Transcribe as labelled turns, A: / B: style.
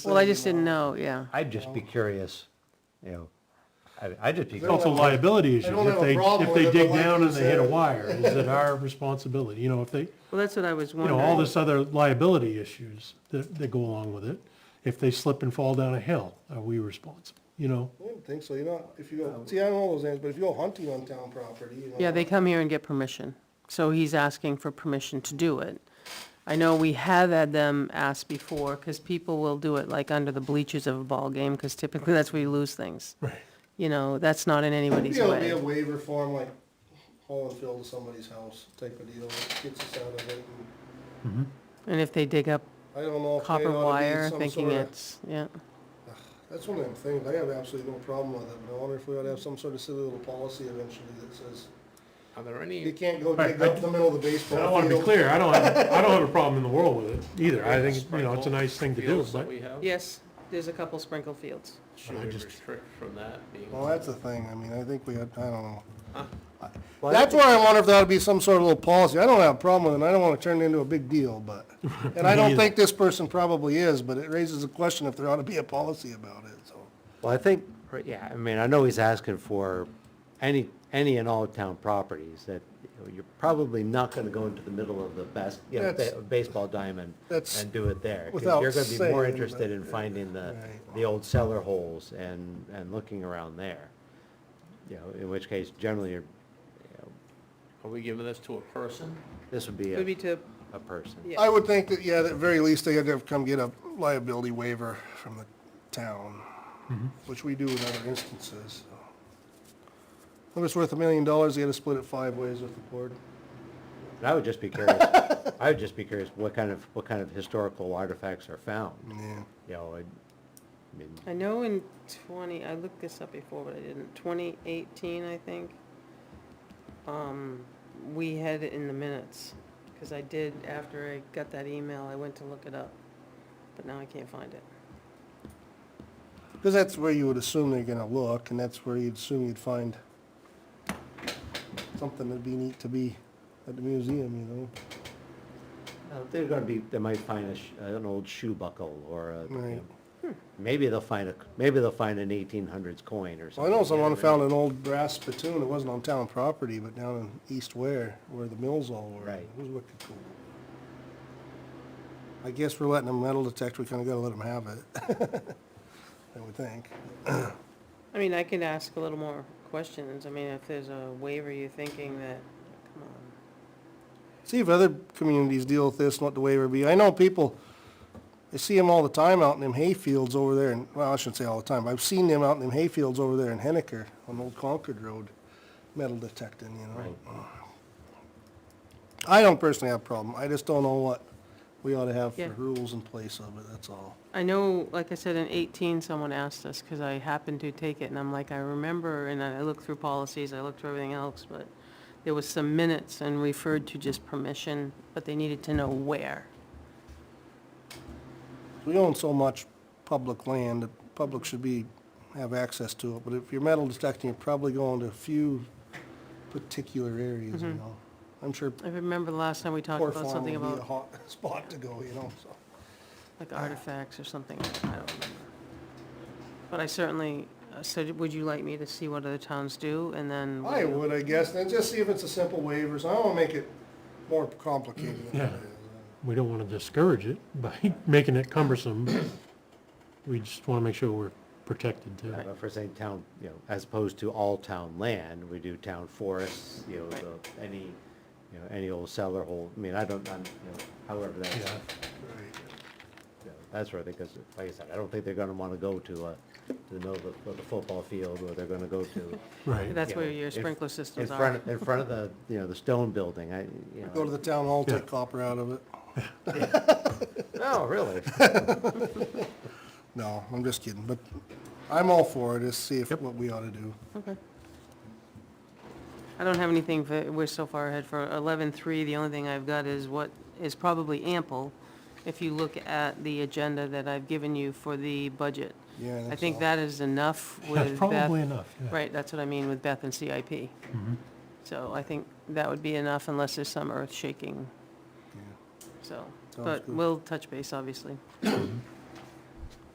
A: Well, I just didn't know, yeah.
B: I'd just be curious, you know, I, I'd just be,
C: It's also
B: curious.
C: liability
D: I
C: issues.
D: don't have
C: If
D: a
C: they,
D: problem
C: if
D: with
C: they
D: it, but
C: dig
D: like
C: down
D: you
C: and they hit a
D: said-
C: wire, is it our responsibility? You know, if they,
A: Well, that's what I was
C: you
A: wondering.
C: know, all this other liability issues that, that go along with it. If they slip and fall down a hill, are we responsible, you know?
D: I didn't think so, you know, if you go, see, I don't know those names, but if you go hunting on town property, you know.
A: Yeah, they come here and get permission. So he's asking for permission to do it. I know we have had them ask before, because people will do it like under the bleachers of a ball game, because typically that's where you lose things.
C: Right.
A: You know, that's not in anybody's
D: Yeah, it'll be a
A: way.
D: waiver form, like haul and fill to somebody's house type of deal, that gets us out of it. and
A: And if they dig up
D: I don't know if they
A: copper
D: ought to
A: wire,
D: be some
A: thinking
D: sort of,
A: it's, yeah.
D: that's one of them things, I have absolutely no problem with it, but I wonder if we ought to have some sort of silly little policy eventually that says,
E: Are there
D: you
E: any,
D: can't go
C: Right,
D: dig
C: I
D: up the middle of the baseball
C: I
D: field.
C: don't want to be clear, I don't have, I don't have a problem in the world with it either. I think, you know, it's a nice thing to do,
E: fields that
C: but
E: we have?
A: Yes, there's a couple sprinkle fields.
E: Should we restrict from that being?
D: Well, that's the thing, I mean, I think we, had- I don't know.
B: Well,
D: That's where I wonder if that would be some sort of little policy. I don't have a problem with it, and I don't want to turn it into a big deal, but, and I don't think this person probably is, but it raises a question if there ought to be a policy about it, so.
B: well, I think, yeah, I mean, I know he's asking for any, any and all town properties that you know, you're probably not gonna go into the middle of the best, you know,
D: That's-
B: ba- baseball diamond
D: that's
B: and do it there. 'cause
D: without
B: You're gonna be more
D: saying,
B: interested
D: but-
B: in finding the,
D: Right.
B: the old cellar holes and, and looking around there. You know, in which case generally you're, you know,
E: Are we giving this to a person?
B: this would be
A: Could
B: a,
A: be to,
B: a person.
A: yeah.
D: I would think that, yeah, at very least, they had to have come get a liability waiver from the town, which we do in other instances, so. If it's worth a million dollars, they had to split it five ways with the board.
B: And I would just be curious, I would just be curious what kind of, what kind of historical artifacts are found,
D: Yeah.
B: you know, and, I mean,
A: I know in twenty, I looked this up before, but I didn't, twenty eighteen, I think, um, we had it in the minutes, because I did, after I got that email, I went to look it up, but now I can't find it.
D: Because that's where you would assume they're gonna look, and that's where you'd assume you'd find something that'd be neat to be at the museum, you know?
B: uh, they're gonna be, they might find a, sh- an old shoe buckle or a, you
D: Right.
B: know, maybe they'll find a, maybe they'll find an eighteen hundreds coin or
D: Well, I
B: something.
D: know
B: you
D: someone
B: but-
D: found an old brass spittoon, it wasn't on town property, but down in East Ware, where the mills all were.
B: Right.
D: It was wicked cool. I guess we're letting them metal detect, we kinda gotta let them have it. I would think.
A: I mean, I can ask a little more questions, I mean, if there's a waiver you're thinking that, come on.
D: See if other communities deal with this, and what the waiver be. I know people, I see them all the time out in them hayfields over there, and, well, I shouldn't say all the time, but I've seen them out in them hayfields over there in Henniker on Old Concord Road, metal detecting, you know? I don't personally have a problem. I just don't know what we ought to have for
A: Yeah.
D: rules in place of it, that's all.
A: I know, like I said, in eighteen, someone asked us, because I happened to take it, and I'm like, I remember, and I looked through policies, I looked through everything else, but there was some minutes and referred to just permission, but they needed to know where.
D: We own so much public land, the public should be, have access to it, but if you're metal detecting, you're probably going to a few particular areas, you know? I'm sure
A: I remember the last time we talked
D: Poor
A: Mm-hmm. about something
D: farm would be a
A: about
D: hot spot to go, you know, so.
A: like artifacts or something, I don't remember. But I certainly, uh, so would you like me to see what other towns do, and then?
D: I
A: we'll-
D: would, I guess, then just see if it's a simple waiver, so I don't wanna make it more complicated than it
C: Yeah.
D: is.
C: we don't want to discourage it by making it cumbersome. We just want to make sure we're protected too.
B: But for saying town, you know, as opposed to all town land, we do town forests, you know, the, any, you know, any old cellar hole, I mean, I don't, I'm, you know, however that's,
C: Yeah.
B: you know, that sort of thing, because like I said, I don't think they're gonna wanna go to, uh, to the middle of the, of the football field, or they're gonna go to,
C: Right.
A: That's
B: Yeah.
A: where your
B: If-
A: sprinkler
B: in
A: systems are.
B: front, in front of the, you know, the stone building, I, you know.
D: Go to the town hall, take
C: Yeah.
D: copper out of it.
B: No, oh, really?
D: No, I'm just kidding, but I'm all for it, just see if, what we ought to do.
A: Okay. I don't have anything for, we're so far ahead for eleven-three, the only thing I've got is what is probably ample, if you look at the agenda that I've given you for the budget.
D: Yeah,
A: I
D: so.
A: think that is enough
C: That's
A: with
C: probably
A: Beth,
C: enough, Mm-hmm. yeah.
A: right, that's what I mean with Beth and CIP. So I think that would be enough unless there's some earth shaking,
D: Yeah.
A: so,
D: Sounds
A: but
D: good.
A: we'll touch base, obviously.